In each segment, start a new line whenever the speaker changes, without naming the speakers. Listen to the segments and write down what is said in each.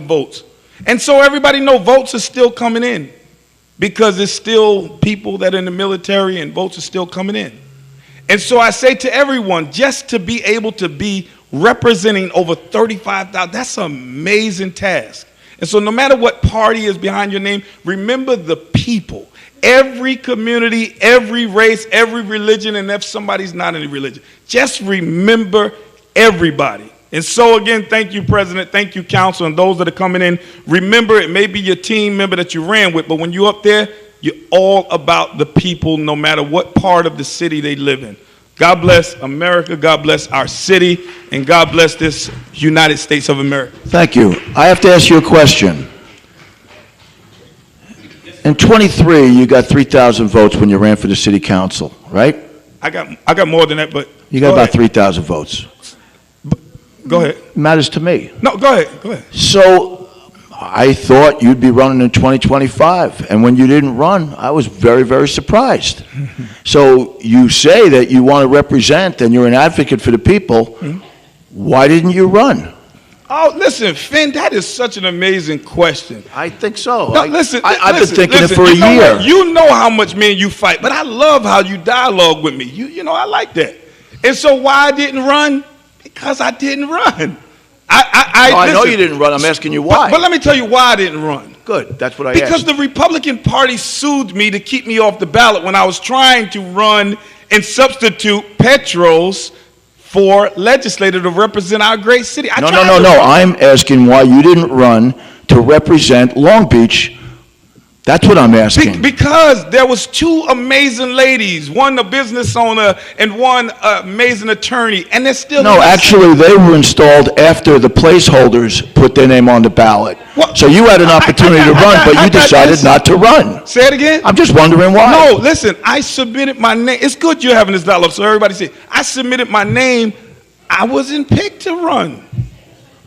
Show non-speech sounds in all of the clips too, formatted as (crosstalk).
votes. And so everybody know votes are still coming in because it's still people that are in the military and votes are still coming in. And so I say to everyone, just to be able to be representing over 35,000, that's an amazing task. And so no matter what party is behind your name, remember the people. Every community, every race, every religion, and if somebody's not in a religion, just remember everybody. And so, again, thank you, President. Thank you, Council, and those that are coming in. Remember, it may be your team member that you ran with, but when you're up there, you're all about the people, no matter what part of the city they live in. God bless America. God bless our city. And God bless this United States of America.
Thank you. I have to ask you a question. In '23, you got 3,000 votes when you ran for the city council, right?
I got, I got more than that, but
You got
Go
about
ahead.
3,000 votes.
go ahead.
Matters to me.
No, go ahead. Go ahead.
So I thought you'd be running in 2025, and when you didn't run, I was very, very surprised. (laughs) So you say that you want to represent and you're an advocate for the people. Why didn't you run?
Oh, listen, Finn, that is such an amazing question.
I think so.
No,
I-
listen,
I- I've been
listen,
thinking it
listen,
for a
you know
year.
what? You know how much me and you fight, but I love how you dialogue with me. You, you know, I like that. And so why I didn't run? Because I didn't run. I, I, I,
No, I know
listen,
you didn't run. I'm asking you
but-
why.
But let me tell you why I didn't run.
Good, that's what I
Because
asked.
the Republican Party sued me to keep me off the ballot when I was trying to run and substitute Petros for legislator to represent our great city. I
No, no,
tried
no,
to
no. I'm asking why you didn't run to represent Long Beach. That's what I'm
Be-
asking.
because there was two amazing ladies, one a business owner and one uh, amazing attorney, and they're still
No,
in this-
actually, they were installed after the placeholders put their name on the ballot.
What?
So you had an
I- I-
opportunity to
I- I-
run, but
I- I-
you decided
listen.
not to run.
Say it again.
I'm just wondering
no,
why.
listen. I submitted my name. It's good you're having this dialogue, so everybody see. I submitted my name. I wasn't picked to run.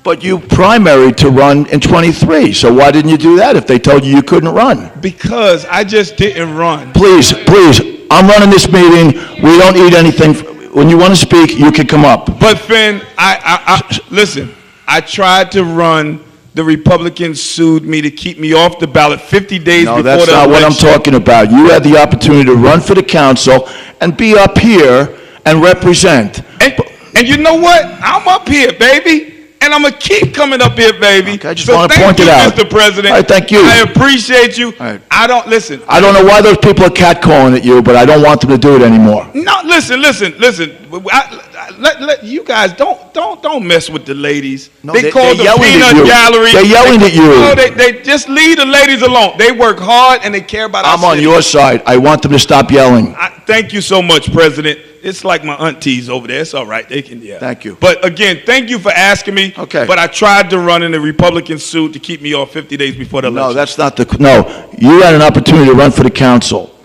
But you primaried to run in '23, so why didn't you do that if they told you you couldn't run?
Because I just didn't run.
Please, please, I'm running this meeting. We don't need anything. When you want to speak, you can come up.
But Finn, I, I, I listen. I tried to run. The Republicans sued me to keep me off the ballot 50 days
No,
before
that's
the
not what I'm
election.
talking about. You had the opportunity to run for the council and be up here and represent.
And, and you know what? I'm up here, baby, and I'm gonna keep coming up here, baby.
Okay, I just
so
wanna
thank
point
you,
it out.
Mr. President.
All right, thank you.
I appreciate you.
All right.
I don't listen.
I don't know why those people are catcalling at you, but I don't want them to do it anymore.
No, listen, listen, listen. I, I, let, let you guys don't don't don't mess with the ladies.
No,
they,
they-
call
they're
the
yelling at
peanut
you.
gallery.
They're yelling at you.
No, they, they just leave the ladies alone. They work hard and they care about.
I'm
our
on
city.
your side. I want them to stop yelling.
I, thank you so much, President. It's like my aunties over there. It's all right. They can, yeah.
Thank you.
But again, thank you for asking me.
Okay.
But I tried to run in the Republican suit to keep me off 50 days before the
No,
election.
that's not the, no, you had an opportunity to run for the council,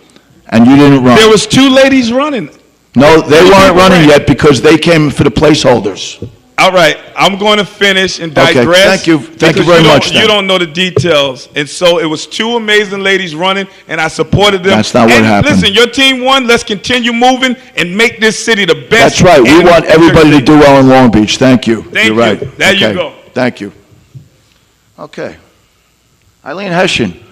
and you didn't
there
run.
was two ladies running.
No, they
Three people
weren't
ran.
running yet because they came for the placeholders.
All right, I'm going to finish and
Okay,
digress.
thank you- thank you
because
very
don't-
much, then.
You don't know the details, and so it was two amazing ladies running, and I supported them.
That's not what
And
happened.
Listen, your team won. Let's continue moving and make this city the best.
That's right. We
and-
want everybody to do well in Long Beach. Thank you.
Thank
You're right.
you. There you
Okay.
go.
Thank you. Okay. Eileen Hessian.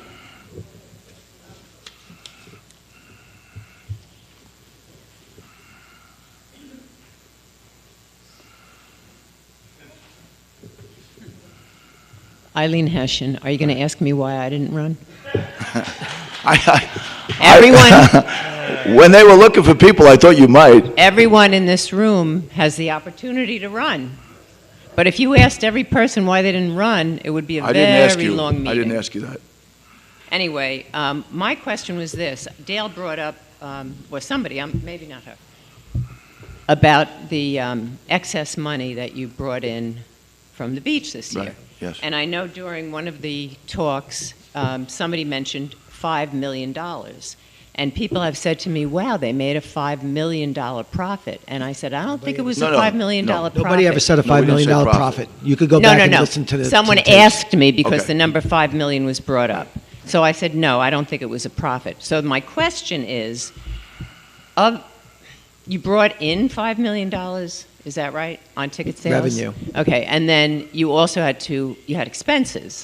Eileen Hessian, are you going to ask me why I didn't run?
I- I- (laughs)
Everyone,
When they were looking for people, I thought you might.
everyone in this room has the opportunity to run. But if you asked every person why they didn't run, it would be a
I
very
didn't ask you.
long meeting.
I didn't ask you that.
Anyway, um, my question was this. Dale brought up, um, or somebody, um, maybe not her, about the um, excess money that you brought in from the beach this year.
Right, yes.
And I know during one of the talks, um, somebody mentioned $5 million. And people have said to me, wow, they made a $5 million profit. And I said, I don't think it was
No,
a
no,
$5 million
no.
profit.
Nobody ever said a
No, we
$5
didn't
million
say
dollar
profit.
profit. You could go
no,
back
no,
and
no.
listen to the. to
Someone
the tapes.
asked me because
Okay.
the number five million was brought up, so I said no. I don't think it was a profit. So my question is, of you brought in five million dollars Is that right? On ticket sales?
Revenue.
Okay, and then you also had to, you had expenses.